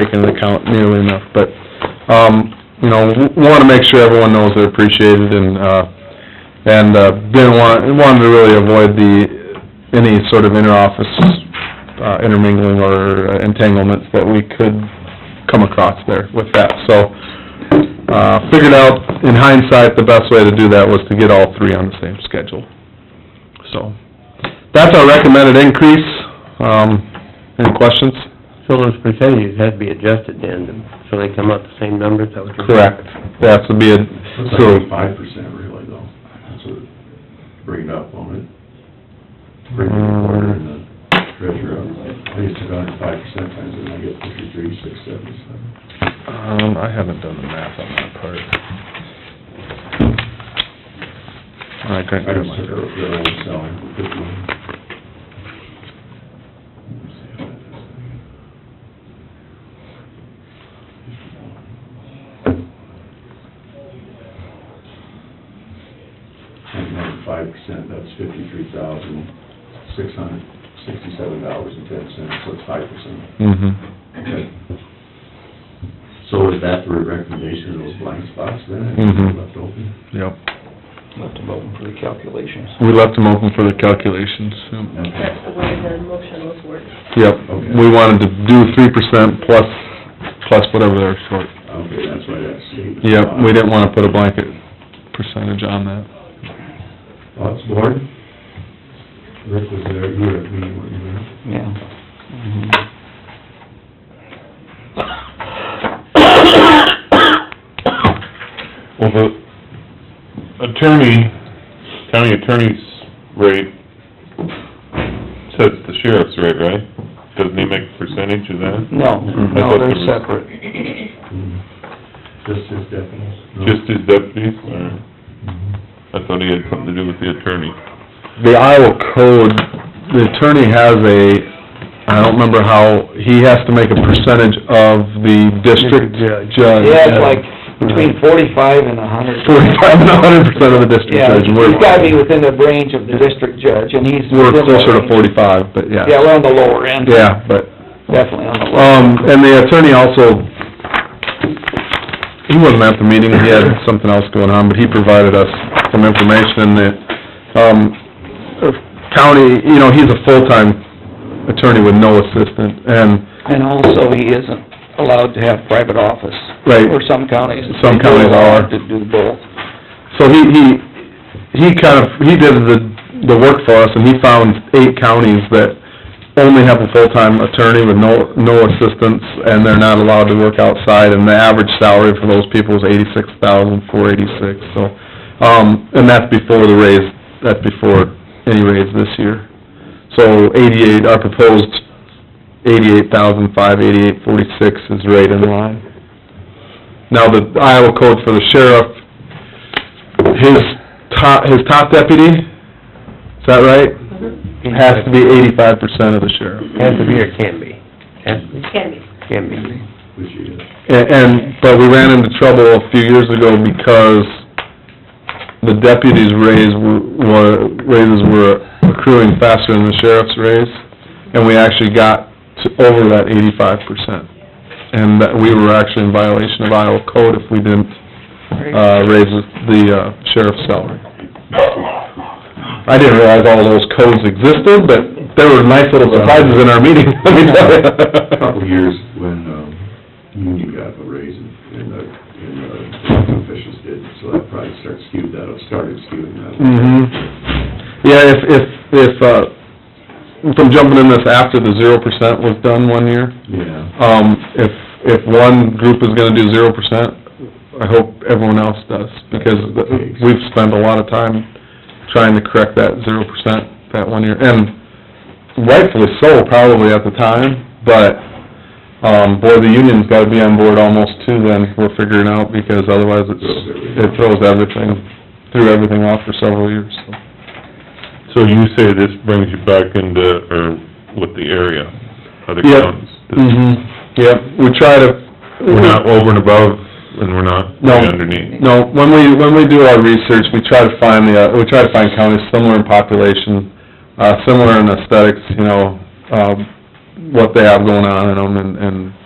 taken into account nearly enough, but, um, you know, w- wanna make sure everyone knows they're appreciated and, uh, and, uh, didn't want, wanted to really avoid the, any sort of inter-office, uh, intermingling or entanglements that we could come across there with that, so, uh, figured out in hindsight, the best way to do that was to get all three on the same schedule, so. That's our recommended increase, um, any questions? So those percentages had to be adjusted then, to- so they come out the same numbers, is that what you're saying? Correct, that's would be a, Mm-hmm. Looks so, like five percent really though, that's what, bring it up on it. Bring the recorder and the treasurer up, I used to go under five percent times and I get fifty-three, six, seven, seven. um, I haven't done the math on that part. I couldn't I do just my- took her up there and sell her for fifty. And then five percent, that's fifty-three thousand, six hundred, sixty-seven dollars and ten cents, so it's five percent. Mhm. So is that the recommendation of those blind spots then, Mhm. left open? Yep, Left them open for the calculations. we left them open for the calculations, yep. That's the way the motion was worded. Yep, Okay. we wanted to do three percent plus, plus whatever they're short. Okay, that's why that's stated. Yep, we didn't wanna put a blanket percentage on that. Thoughts, board? Rick was there, you were at the meeting, weren't you there? Yeah. Well, the attorney, county attorney's rate says the sheriff's rate, right? Doesn't he make a percentage of that? No, Mm-hmm. I no, thought they're there was- separate. Just his deputies? No? Just his deputies, or, I thought he had something to do with the attorney. the Iowa code, the attorney has a, I don't remember how, he has to make a percentage of the district District judge. judge. Yeah, it's like between forty-five and a hundred. Forty-five and a hundred percent of the district Yeah, judge. and we're- he's gotta be within the range of the district judge, and he's. We're within the closer to range. forty-five, but yeah. Yeah, we're on the lower end. Yeah, but, Definitely on the lower. um, and the attorney also, he wasn't at the meeting, he had something else going on, but he provided us some information that, um, county, you know, he's a full-time attorney with no assistant, and And also, he isn't allowed to have private office. Right. Or some counties. Some counties They're allowed To are. do both. So he, he, he kind of, he did the, the work for us, and he found eight counties that only have a full-time attorney with no, no assistants, and they're not allowed to work outside, and the average salary for those people is eighty-six thousand, four eighty-six, so, um, and that's before the raise, that's before any raise this year. So eighty-eight, our proposed eighty-eight thousand, five eighty-eight, forty-six is right in line. Now, the Iowa code for the sheriff his top, his top deputy, is that right? Has to be eighty-five percent of the sheriff. Has to be or can be? Has to be, Can be. can be. Which he is. And, and, but we ran into trouble a few years ago because the deputy's raise were, raises were accruing faster than the sheriff's raise, and we actually got to over that eighty-five percent. And that we were actually in violation of Iowa code if we didn't, uh, raise the uh, sheriff's salary. I didn't realize all those codes existed, but there were nice little surprises in our meeting, let me tell A couple you. years when, um, Union got a raise and, and, uh, and, uh, elected officials did, so that probably started skewed that, up- started skewing that. Mhm. Yeah, if, if, if, uh, from jumping in this after the zero percent was done one year, Yeah. um, if, if one group is gonna do zero percent, I hope everyone else does, because we've spent a lot of time trying to correct that zero percent that one year, and rightfully so probably at the time, but, um, boy, the union's gotta be on board almost too then, we're figuring out, because otherwise it's, it throws everything, threw everything off for several years, so. So you say this brings you back into, or with the area, other Yep. counties? Mm-hmm, yep, we try to... We're not over and above, and we're not No. right underneath. No, when we, when we do our research, we try to find the, uh, we try to find counties similar in population, uh, similar in aesthetics, you know, um, what they have going on in them and, and